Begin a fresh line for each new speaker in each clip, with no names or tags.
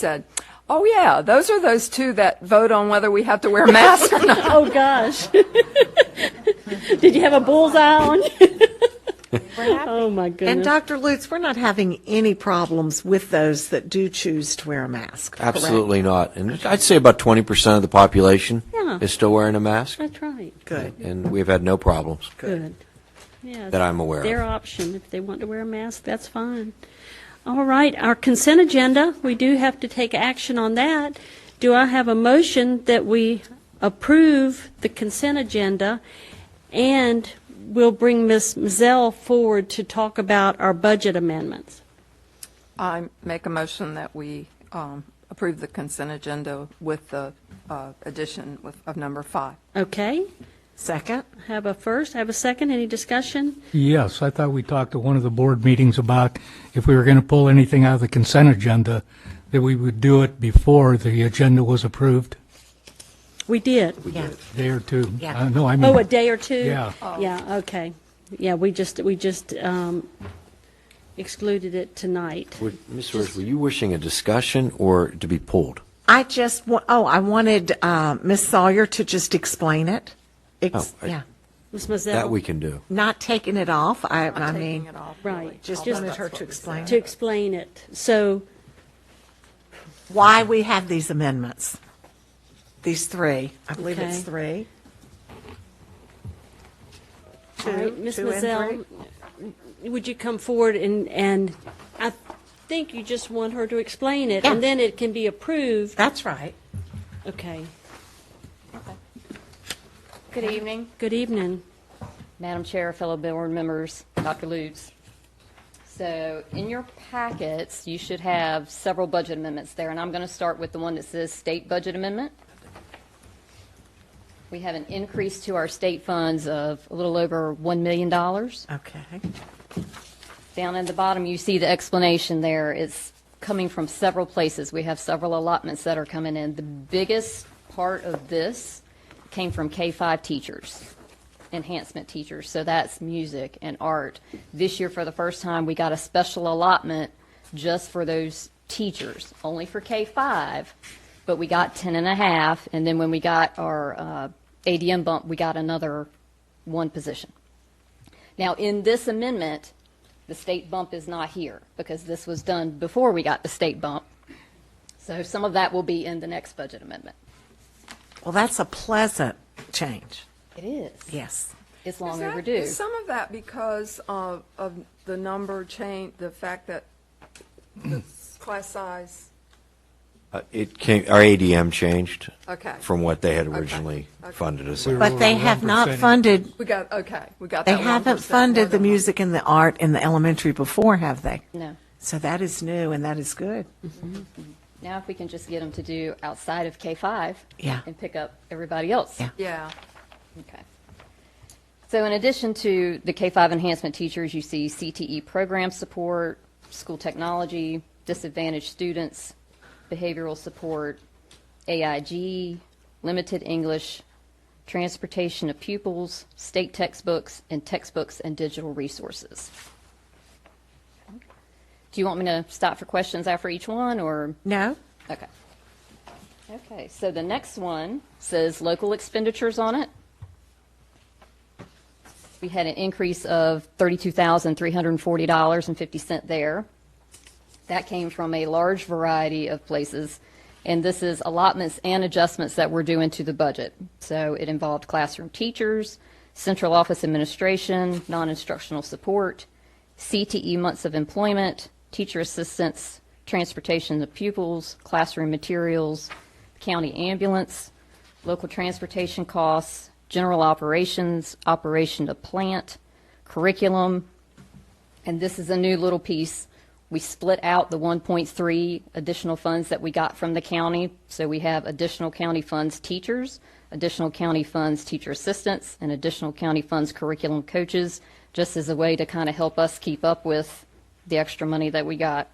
said, oh yeah, those are those two that vote on whether we have to wear masks or not.
Oh, gosh. Did you have a bullseye on? Oh, my
And
goodness.
Dr. Lutz, we're not having any problems with those that do choose to wear a mask. correct?
Absolutely not. And I'd say about 20% of the population
Yeah.
is still wearing a mask,
That's right.
Good.
and we've had no problems.
Good. Yes.
That I'm aware of.
Their option. If they want to wear a mask, that's fine. All right, our consent agenda, we do have to take action on that. Do I have a motion that we approve the consent agenda? And we'll bring Ms. Mazel forward to talk about our budget amendments.
I make a motion that we um, approve the consent agenda with the uh, addition with- of number five.
Okay?
Second?
Have a first, have a second, any discussion?
Yes, I thought we talked at one of the board meetings about if we were going to pull anything out of the consent agenda, that we would do it before the agenda was approved,
We did.
Yeah.
day or two.
Yeah.
Uh, No, I mean.
Oh, a day or two?
Yeah.
Oh.
Yeah, okay. Yeah, we just, we just um, excluded it tonight.
Would- Ms. Rose, were you wishing a discussion or to be pulled?
I just, wa- oh, I wanted uh, Ms. Sawyer to just explain it. Ex-
Oh, I-
Yeah,
Ms. Mazel?
That we can do.
not taking it off, I, I
Taking
mean,
it off,
Right.
really.
just
Just-
wanted her to explain
To explain it. So,
why we have these amendments. These three, I believe it's
Okay.
three.
all right, Ms.
two and
Mazel, would you come forward and, and I think you just want her to explain it,
Yeah.
and then it can be approved?
That's right.
Okay.
Good evening,
Good evening.
Madam Chair, fellow board members, Dr. Lutz. So in your packets, you should have several budget amendments there, and I'm going to start with the one that says state budget amendment. We have an increase to our state funds of a little over $1 million.
Okay.
Down at the bottom, you see the explanation there. It's coming from several places. We have several allotments that are coming in. The biggest part of this came from K-5 teachers, enhancement teachers. So that's music and art. This year, for the first time, we got a special allotment just for those teachers, only for K-5, but we got 10 and a half. And then when we got our uh, ADM bump, we got another one position. Now, in this amendment, the state bump is not here because this was done before we got the state bump. So some of that will be in the next budget amendment.
Well, that's a pleasant change.
It is.
Yes.
It's long
Is that-
overdue.
Is some of that because of, of the number change, the fact that the s- class size?
Uh, It came, our ADM changed
Okay.
from what they had originally
Okay.
funded us.
We
at.
were-
But they have not
1%.
funded,
We got, okay, we got
they
that.
haven't
1%
funded
more
the
than-
music and the art in the elementary before, have they?
No.
So that is new and that is good.
Now if we can just get them to do outside of K-5
Yeah.
and pick up everybody else.
Yeah.
Yeah.
Okay. So in addition to the K-5 enhancement teachers, you see CTE program support, school technology, disadvantaged students, behavioral support, AIG, limited English, transportation of pupils, state textbooks, and textbooks and digital resources. Do you want me to stop for questions after each one, or?
No?
Okay. Okay, so the next one says local expenditures on it. We had an increase of $32,340.50 there. That came from a large variety of places, and this is allotments and adjustments that we're doing to the budget. So it involved classroom teachers, central office administration, non-instructional support, CTE months of employment, teacher assistance, transportation of pupils, classroom materials, county ambulance, local transportation costs, general operations, operation of plant, curriculum, and this is a new little piece. We split out the 1.3 additional funds that we got from the county. So we have additional county funds teachers, additional county funds teacher assistants, and additional county funds curriculum coaches, just as a way to kind of help us keep up with the extra money that we got.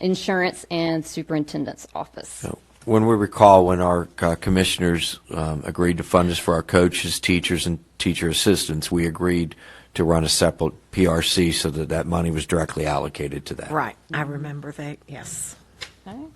Insurance and superintendent's office.
When we recall, when our uh, commissioners um, agreed to fund us for our coaches, teachers, and teacher assistants, we agreed to run a separate PRC so that that money was directly allocated to that.
Right. I remember that, yes.
Okay.